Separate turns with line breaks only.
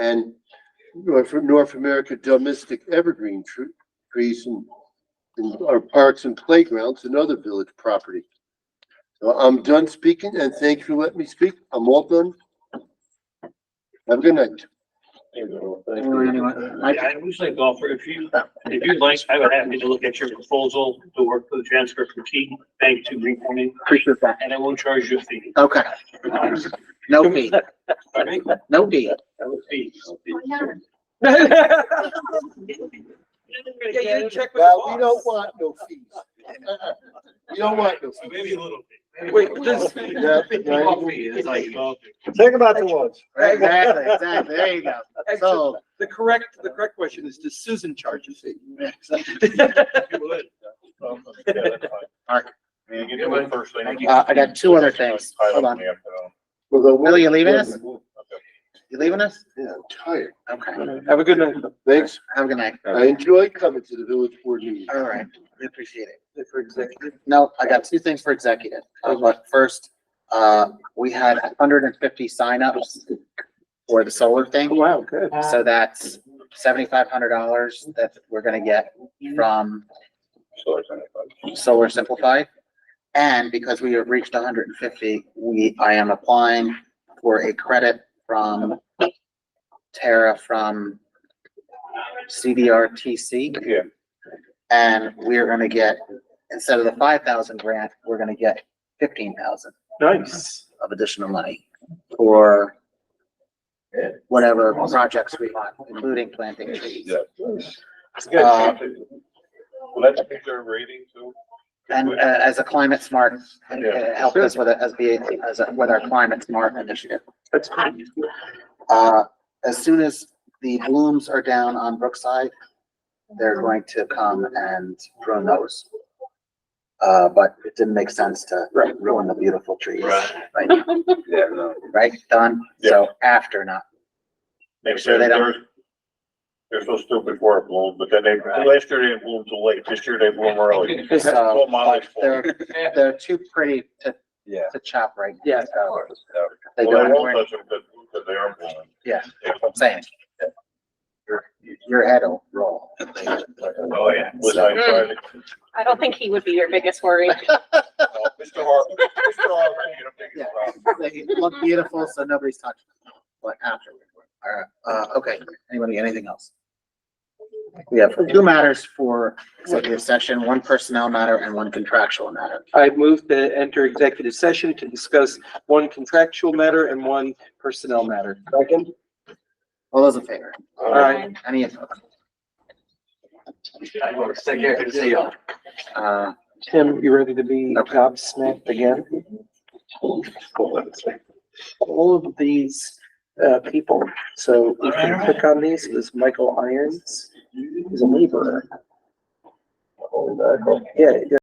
and North, North America domestic evergreen tr- trees and, and our parks and playgrounds, another village property. So I'm done speaking and thank you for letting me speak. I'm all done. Have a good night.
Yeah, I would say golfer, if you,
Uh,
if you'd like, I would happy to look at your proposal to work for the transfer from T Bank to Green Point,
Appreciate that.
and I won't charge you a fee.
Okay, no fee,
Pardon me?
no fee.
That would be-
Yeah, you check with
Well, we
the
don't
boss.
want no fees. We don't want no
Maybe
fees.
a little. fee.
Wait, this-
Yeah, yeah.
Coffee is like golf.
Think about the ones.
Exactly, exactly, there you go.
Actually,
So,
the correct, the correct question is, does Susan charge a fee?
uh, I got two other things, hold on,
Will
you leaving us? you leaving us?
Yeah, I'm tired.
Okay,
Have a good night.
Thanks.
have a good night,
I enjoy coming to the village board meeting.
all right, we appreciate it.
For executive.
No, I got two things for executive, Uh, but first, uh, we had hundred and fifty signups for the solar thing.
Wow, good.
So that's seventy-five hundred dollars that we're gonna get from Solar Simplified. And because we have reached hundred and fifty, we, I am applying for a credit from Tara from CDRTC.
Yeah.
And we're gonna get, instead of the five thousand grant, we're gonna get fifteen thousand
Nice.
of additional money for whatever projects we want, including planting trees. Uh,
Well, that's a picture rating too.
And uh, as a climate smart, uh,
Yeah.
help us with, it as be, as, a- with our climate smart initiative.
That's great.
Uh, as soon as the blooms are down on Brookside, they're going to come and prune those. Uh, but it didn't make sense to ruin the beautiful trees.
Right.
Right,
Yeah, no.
right, Don? So after, not
They
Sure
said
they don't-
they're, they're so stupid for it bloom, but then they, last year they didn't bloom too late, this year they bloom early. That's all my
So,
life's fault.
they're, they're too pretty to,
Yeah.
to chop right. now.
Yeah.
So They
Well, they won't
don't,
touch them because, because they are blooming.
yeah, same. Your, your head will roll.
Oh, yeah. Was I invited?
I don't think he would be your biggest worry.
No, Mr. Harper, Mr. Harper, you don't think
Yeah.
it's a problem.
They look beautiful, so nobody's touching them, but after. All right, uh, okay, anybody, anything else? We have two matters for executive session, one personnel matter and one contractual matter.
I move to enter executive session to discuss one contractual matter and one personnel matter. Second?
All those in favor?
All right.
Any opposed? Uh,
Tim, you ready to be gobsmacked again? All of these, uh, people, so if you click on these, it was Michael Irons, he's a laborer. Yeah,